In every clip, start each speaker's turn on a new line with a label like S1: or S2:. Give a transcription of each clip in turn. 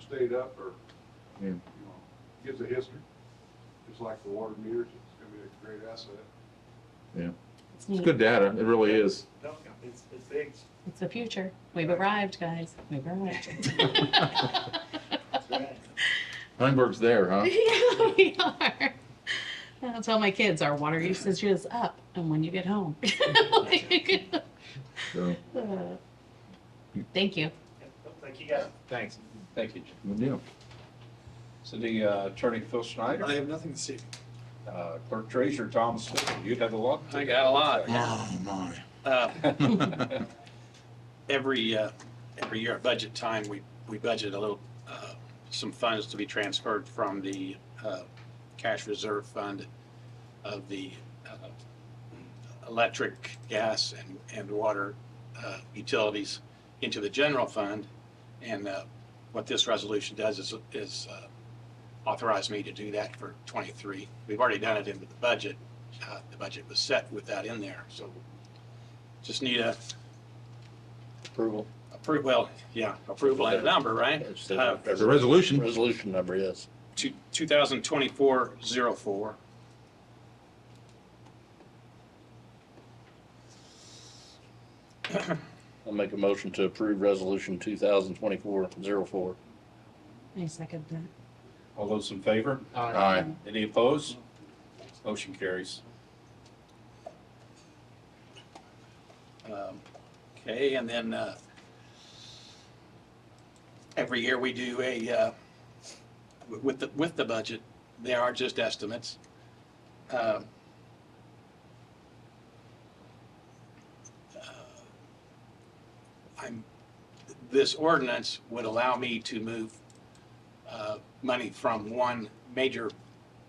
S1: stayed up or,
S2: Yeah.
S1: you know, gives a history. Just like the water meters, it's gonna be a great asset.
S2: It's
S3: neat.
S2: good data, it really is.
S4: No, it's, it's big.
S3: It's the future. We've arrived, guys. We've arrived.
S4: That's right.
S2: Heinberg's there, huh?
S3: Yeah, we are. I'll tell my kids our water usage is up, and when you get home. Like,
S2: So,
S3: uh, Thank you.
S4: Thank you guys.
S5: Thanks. Thank you. Jim.
S2: yeah.
S5: City uh, Attorney Phil Schneider,
S6: I have nothing to say.
S5: uh, Clerk Treasurer Tom Smith, you have a lot.
S6: I got a lot.
S2: Oh, my.
S6: Uh, Every, uh, every year at budget time, we, we budget a little, uh, some funds to be transferred from the uh, cash reserve fund of the uh, electric, gas, and, and water uh, utilities into the general fund. And uh, what this resolution does is, is uh, authorize me to do that for '23. We've already done it in the budget. Uh, The budget was set with that in there, so just need a
S7: Approval.
S6: approval, well, yeah, approval and a number, right?
S7: It's
S6: Uh,
S7: the
S2: It's a resolution.
S7: Resolution number, yes.
S6: Two- 2024-04.
S7: I'll make a motion to approve resolution 2024-04.
S3: I second that.
S5: All those in favor?
S2: Aye.
S5: Any opposed? Motion carries.
S6: Um, Okay, and then uh, every year we do a, uh, wi- with the, with the budget, they are just estimates. Um, uh, I'm, this ordinance would allow me to move uh, money from one major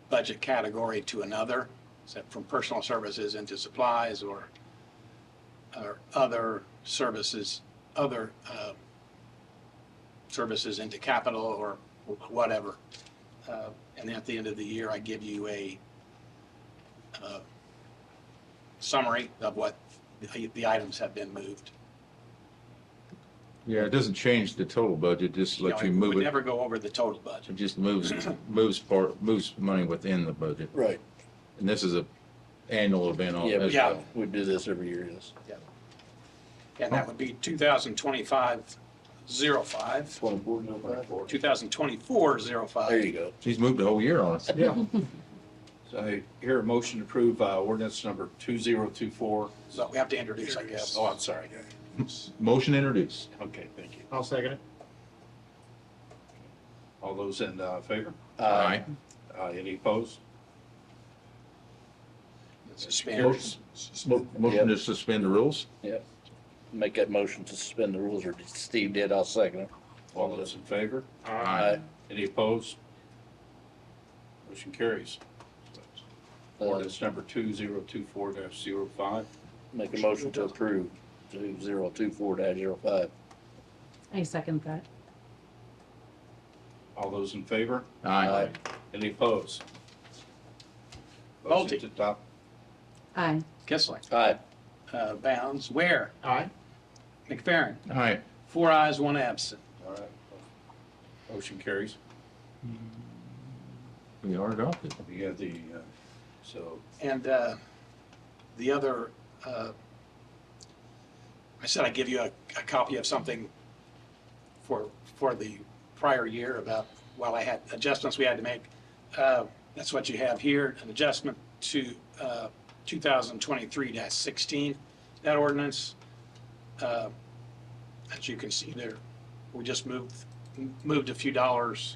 S6: budget category to another, except from personal services into supplies or or other services, other uh, services into capital or whatever. Uh, And at the end of the year, I give you a uh, summary of what the the items have been moved.
S2: Yeah, it doesn't change the total budget, just let
S6: know,
S2: you
S6: it
S2: move
S6: would
S2: it.
S6: never go over the total budget.
S2: It just moves, moves part, moves money within the budget.
S7: Right.
S2: And this is a annual event on
S7: Yeah,
S2: as
S7: we-
S6: Yeah.
S2: well.
S7: we do this every year, yes.
S6: And that would be 2025-05,
S7: 24.
S6: 2024-05.
S7: There you go.
S2: She's moved the whole year on us.
S5: Yeah. So I hear a motion to approve uh, ordinance number 2024.
S6: So we have to introduce, I guess.
S5: Oh, I'm sorry.
S2: Motion introduced.
S5: Okay, thank you.
S4: I'll second it.
S5: All those in uh, favor?
S2: Aye.
S5: Uh, Any opposed?
S6: Suspend.
S2: Motion motion to suspend the rules.
S7: Make that motion to suspend the rules, or Steve did, I'll second it.
S5: All those in favor?
S2: Aye.
S5: Any opposed? Motion carries.
S7: Uh,
S5: Ordinance number 2024-05.
S7: Make a motion to approve 2024-05.
S3: I second that.
S5: All those in favor?
S2: Aye.
S5: Any opposed?
S6: Bolte.
S5: Motion to adopt.
S3: Aye.
S6: Kissling.
S7: Aye.
S6: Uh, Bounds. Ware.
S4: Aye.
S6: McFerrin.
S2: Aye.
S6: Four eyes, one absent.
S5: All right. Motion carries.
S2: We are adopted.
S5: We have the, uh, so,
S6: And uh, the other, uh, I said I'd give you a, a copy of something for, for the prior year about, while I had adjustments we had to make. Uh, That's what you have here, an adjustment to uh, 2023-16, that ordinance. uh, As you can see there, we just moved, moved a few dollars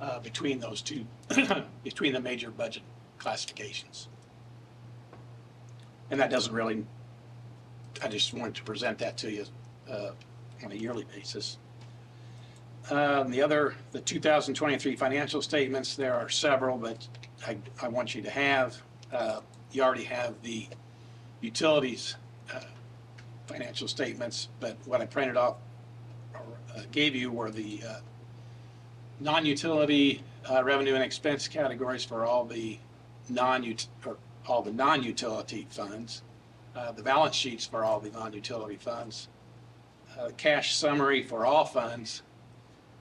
S6: uh, between those two, between the major budget classifications. And that doesn't really, I just wanted to present that to you uh, on a yearly basis. Um, The other, the 2023 financial statements, there are several, but I, I want you to have, uh, you already have the utilities uh, financial statements, but what I printed off or uh, gave you were the uh, non-utility uh, revenue and expense categories for all the non-ut, or all the non-utility funds, uh, the balance sheets for all the non-utility funds, uh, cash summary for all funds,